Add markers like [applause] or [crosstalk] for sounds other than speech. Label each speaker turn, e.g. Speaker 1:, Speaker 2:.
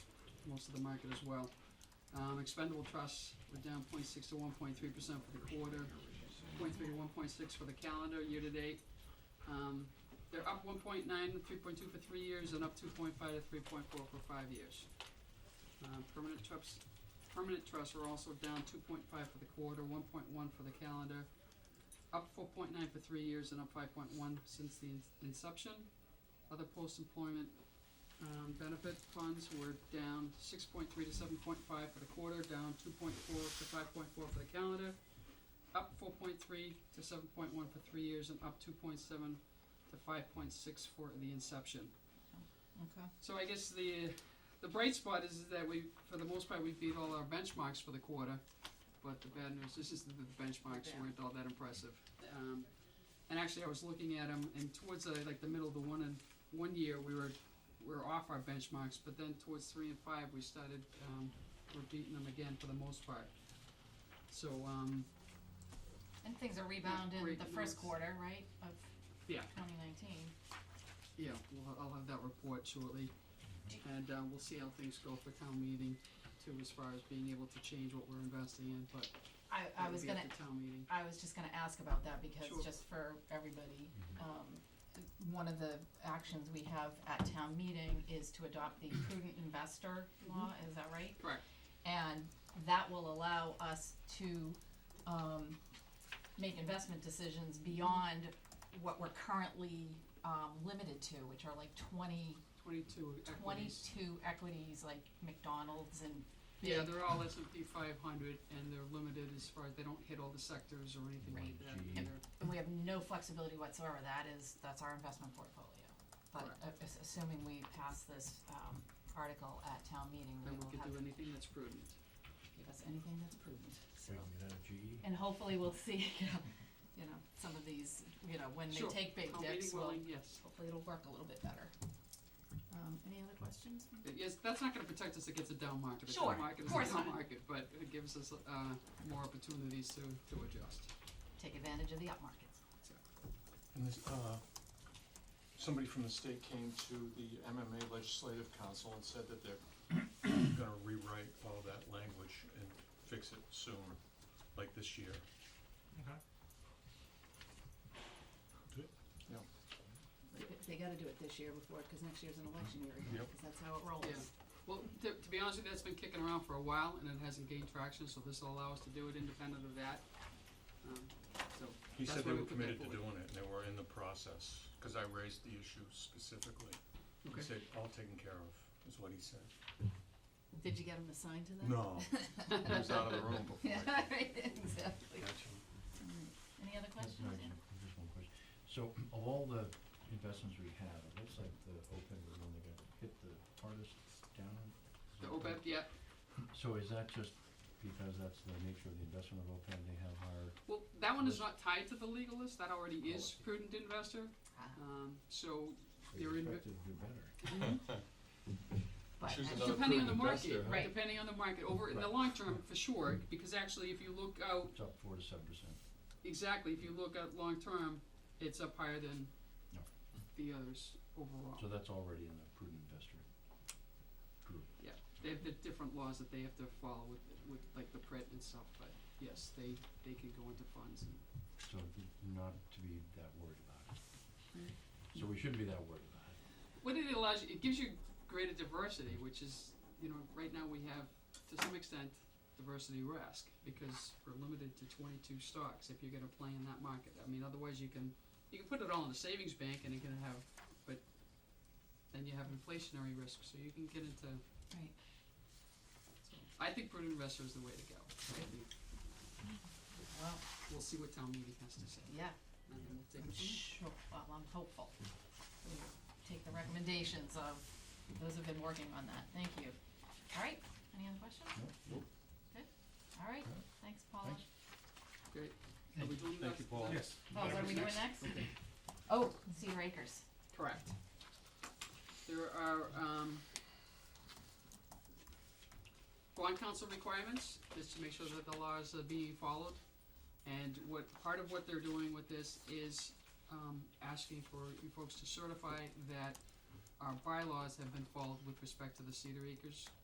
Speaker 1: most of the market as well. Um, expendable trusts were down 0.6 to one point three percent for the quarter, 0.3 to one point six for the calendar year-to-date. Um, they're up 1.9 to 3.2 for three years and up two point five to three point four for five years. Um, permanent trusts, permanent trusts are also down two point five for the quarter, one point one for the calendar, up four point nine for three years and up five point one since the in- inception. Other post-employment, um, benefit funds were down six point three to seven point five for the quarter, down two point four to five point four for the calendar, up four point three to seven point one for three years and up two point seven to five point six for the inception.
Speaker 2: Okay.
Speaker 1: So I guess the, the bright spot is that we, for the most part, we beat all our benchmarks for the quarter, but the bad news, this is that the benchmarks
Speaker 2: Yeah.
Speaker 1: weren't all that impressive. Um, and actually, I was looking at them, and towards the, like, the middle of the one and, one year, we were, we were off our benchmarks, but then towards three and five, we started, um, we're beating them again for the most part. So, um,
Speaker 2: And things are rebounding
Speaker 1: Great
Speaker 2: the first
Speaker 1: notes.
Speaker 2: quarter, right, of
Speaker 1: Yeah.
Speaker 2: twenty nineteen.
Speaker 1: yeah, we'll, I'll have that report shortly.
Speaker 2: Do-
Speaker 1: And, uh, we'll see how things go for town meeting too, as far as being able to change what we're investing in, but
Speaker 2: I, I was gonna,
Speaker 1: That would be at the town meeting.
Speaker 2: I was just gonna ask about that because
Speaker 1: Sure.
Speaker 2: just for everybody, um, one of the actions we have at town meeting is to adopt the prudent investor law, is that right?
Speaker 1: Correct.
Speaker 2: And that will allow us to, um, make investment decisions beyond what we're currently, um, limited to, which are like twenty
Speaker 1: Twenty-two equities.
Speaker 2: twenty-two equities like McDonald's and big.
Speaker 1: Yeah, they're all S and P five hundred and they're limited as far as they don't hit all the sectors or anything like
Speaker 2: Right.
Speaker 1: that
Speaker 3: Mhm.
Speaker 1: either.
Speaker 2: And we have no flexibility whatsoever, that is, that's our investment portfolio. But
Speaker 1: Correct.
Speaker 2: a- as- assuming we pass this, um, article at town meeting, we
Speaker 1: Then
Speaker 2: will
Speaker 1: we
Speaker 2: have,
Speaker 1: could do anything that's prudent.
Speaker 2: give us anything that's prudent, so.
Speaker 3: Bring it out of GE.
Speaker 2: And hopefully we'll see, [laughs] you know, you know, some of these, you know, when they
Speaker 1: Sure.
Speaker 2: take big
Speaker 1: Town meeting
Speaker 2: dips, will
Speaker 1: willing, yes.
Speaker 2: hopefully it'll work a little bit better. Um, any other questions?
Speaker 1: Uh, Yes, that's not gonna protect us against a down market. A
Speaker 2: Sure,
Speaker 1: down market is
Speaker 2: course
Speaker 1: a down
Speaker 2: not.
Speaker 1: market, but it gives us, uh, more opportunities to, to adjust.
Speaker 2: Take advantage of the up markets.
Speaker 4: And this, uh, somebody from the state came to the MMA Legislative Council and said that they're [coughs] gonna rewrite all of that language and fix it soon, like this year.
Speaker 3: Okay.
Speaker 2: They, they gotta do it this year before, cause next year's an election year again,
Speaker 4: Yep.
Speaker 2: cause that's how it rolls.
Speaker 1: Yeah. Well, to, to be honest with you, that's been kicking around for a while and it hasn't gained traction, so this will allow us to do it independent of that. Um, so,
Speaker 4: He
Speaker 1: That's
Speaker 4: said they
Speaker 1: why we put
Speaker 4: were
Speaker 1: that
Speaker 4: committed to
Speaker 1: forward.
Speaker 4: doing it, and they were in the process, cause I raised the issue specifically. He
Speaker 1: okay.
Speaker 4: said, all taken care of, is what he said.
Speaker 2: Did you get him assigned to that?
Speaker 4: No, he was out of the room
Speaker 2: [laughs]
Speaker 4: before.
Speaker 2: Yeah,
Speaker 4: I-
Speaker 2: right, exactly.
Speaker 4: Gotcha.
Speaker 2: Any other
Speaker 3: That's
Speaker 2: questions?
Speaker 3: nice. Just one question. So of all the investments we have, it looks like the open were the one that got hit the hardest down. Is
Speaker 1: The
Speaker 3: that
Speaker 1: OPEB,
Speaker 3: correct?
Speaker 1: yeah,
Speaker 3: So is that just because that's the nature of the investment of open, they have higher,
Speaker 1: Well, that one is not tied to the legal list, that already is prudent investor,
Speaker 2: Ah,
Speaker 1: um, so
Speaker 3: they
Speaker 1: They're in-
Speaker 3: expected to do better?
Speaker 2: But,
Speaker 4: Choose
Speaker 2: uh,
Speaker 4: another
Speaker 1: depending on the
Speaker 4: prudent
Speaker 1: market,
Speaker 4: investor, huh? Mm-hmm.
Speaker 2: Right.
Speaker 1: depending on the market, over in the
Speaker 3: Right.
Speaker 1: long term, for sure, because actually, if you look out,
Speaker 3: It's up four to seven percent.
Speaker 1: exactly, if you look at long term, it's up higher than
Speaker 3: Yeah.
Speaker 1: the others overall.
Speaker 3: So that's already in the prudent investor group.
Speaker 1: They have the different laws that they have to follow with, with like the print and stuff, but yes, they, they can go into funds and
Speaker 3: So not to be that worried about it. So we shouldn't be that worried about it.
Speaker 1: What it allows you, it gives you greater diversity, which is, you know, right now we have, to some extent, diversity risk, because we're limited to twenty-two stocks if you're gonna play in that market. I mean, otherwise you can, you can put it all in a savings bank and you can have, but then you have inflationary risk, so you can get into,
Speaker 2: right.
Speaker 1: so, I think prudent investor is the way to go. I think
Speaker 2: Well,
Speaker 1: We'll see what town meeting has to say,
Speaker 2: yeah,
Speaker 1: and then we'll take
Speaker 2: I'm
Speaker 1: it from there.
Speaker 2: sure, well, I'm hopeful. We'll Take the recommendations of those who've been working on that, thank you. All right, any other questions?
Speaker 3: No?
Speaker 2: All right,
Speaker 3: Okay.
Speaker 2: thanks, Paula.
Speaker 3: Thanks.
Speaker 1: Great, are we doing that?
Speaker 4: Thank you, Paul.
Speaker 3: Yes.
Speaker 2: Oh, what are we doing next? Oh, Cedar Acres.
Speaker 1: Correct. There are, um, bond council requirements, just to make sure that the laws are being followed. And what, part of what they're doing with this is, um, asking for you folks to certify that our bylaws have been followed with respect to the Cedar Acres